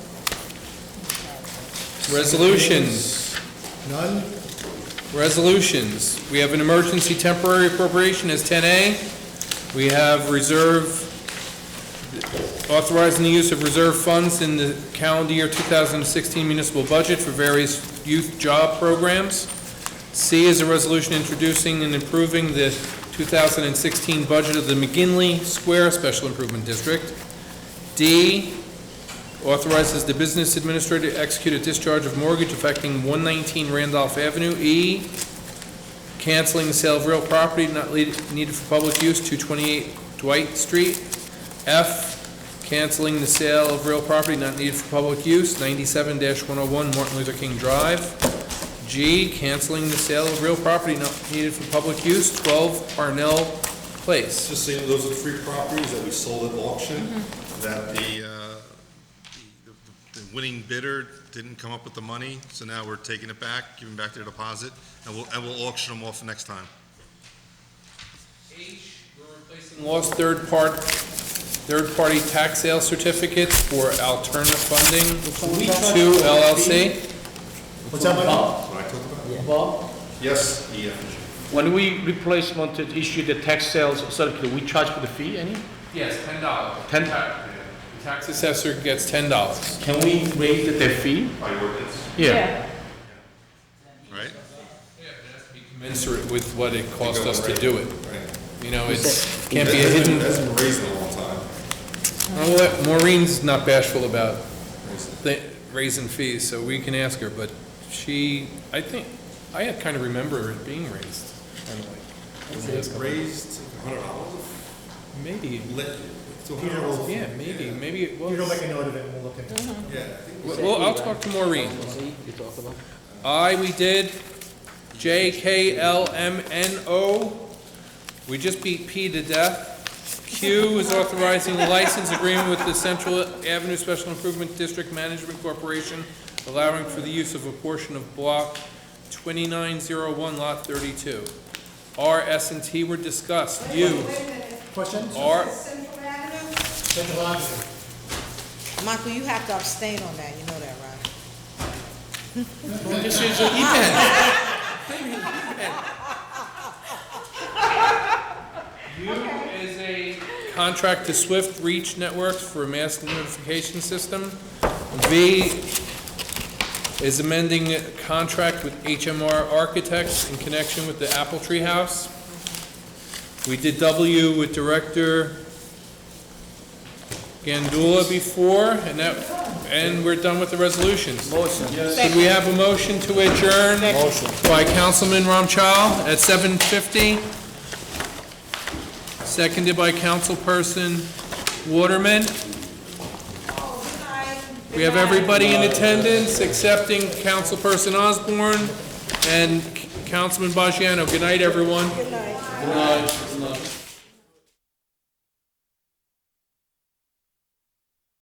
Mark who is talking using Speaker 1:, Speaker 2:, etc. Speaker 1: Resolutions,
Speaker 2: None?
Speaker 1: resolutions. We have an emergency temporary appropriation as 10A. We have reserve, authorizing the use of reserve funds in the calendar year 2016 municipal budget for various youth job programs. C is a resolution introducing and improving the 2016 budget of the McGinley Square Special Improvement District. D authorizes the business administrator to execute a discharge of mortgage affecting 119 Randolph Avenue. E, canceling sale of real property not lead- needed for public use, 228 Dwight Street. F, canceling the sale of real property not needed for public use, 97-101 Martin Luther King Drive. G, canceling the sale of real property not needed for public use, 12 Parnell Place.
Speaker 2: Just saying, those are the three properties that we sold at auction, that the, uh, the- the winning bidder didn't come up with the money, so now we're taking it back, giving back their deposit, and we'll, and we'll auction them off next time.
Speaker 1: H, we're replacing lost third part, third-party tax sale certificates for alternate funding to LLC.
Speaker 3: What's that, Bob?
Speaker 2: What I talked about?
Speaker 3: Bob?
Speaker 2: Yes, E, F, and G.
Speaker 3: When we replacement to issue the tax sales certificate, we charge for the fee any?
Speaker 1: Yes, ten dollars.
Speaker 3: Ten-
Speaker 1: The tax assessor gets ten dollars.
Speaker 3: Can we raise the fee?
Speaker 2: By ordinance, right?
Speaker 1: Commensurate with what it cost us to do it.
Speaker 2: Right.
Speaker 1: You know, it's, can't be a hidden,
Speaker 2: That's been raised in a long time.
Speaker 1: I'll let- Maureen's not bashful about
Speaker 2: Raised.
Speaker 1: thi- raising fees, so we can ask her, but she, I think, I kind of remember it being raised. kind of like, over the last
Speaker 2: It's
Speaker 1: couple-
Speaker 2: raised to a hundred dollars,
Speaker 1: Maybe.
Speaker 2: lit, to a hundred dollars.
Speaker 1: Yeah, maybe, maybe it
Speaker 4: You don't
Speaker 1: was.
Speaker 4: make a note of it, we'll look at it.
Speaker 2: Yeah, I think
Speaker 1: Well, I'll talk to Maureen. I, we did. J, K, L, M, N, O. We just beat P to death. Q is authorizing the license agreement with the Central Avenue Special Improvement District Management Corporation, allowing for the use of a portion of block 2901, lot 32. R, S, and T were discussed. U,
Speaker 5: Wait a minute,
Speaker 4: Questions?
Speaker 1: R,
Speaker 5: Central Avenue?
Speaker 4: Central Avenue.
Speaker 5: Michael, you have to abstain on that, you know that, right?
Speaker 1: This is an event. You is a contract to Swift Reach Networks for a mass notification system. V is amending a contract with HMR Architects in connection with the Apple Tree House. We did W with Director Gandula before, and that, and we're done with the resolutions. Do we have a motion to adjourn? By Councilman Ramchal at 7:50. Seconded by Councilperson Waterman. We have everybody in attendance excepting Councilperson Osborne and Councilman Bajano. Good night, everyone.
Speaker 5: Good night.
Speaker 1: Good night.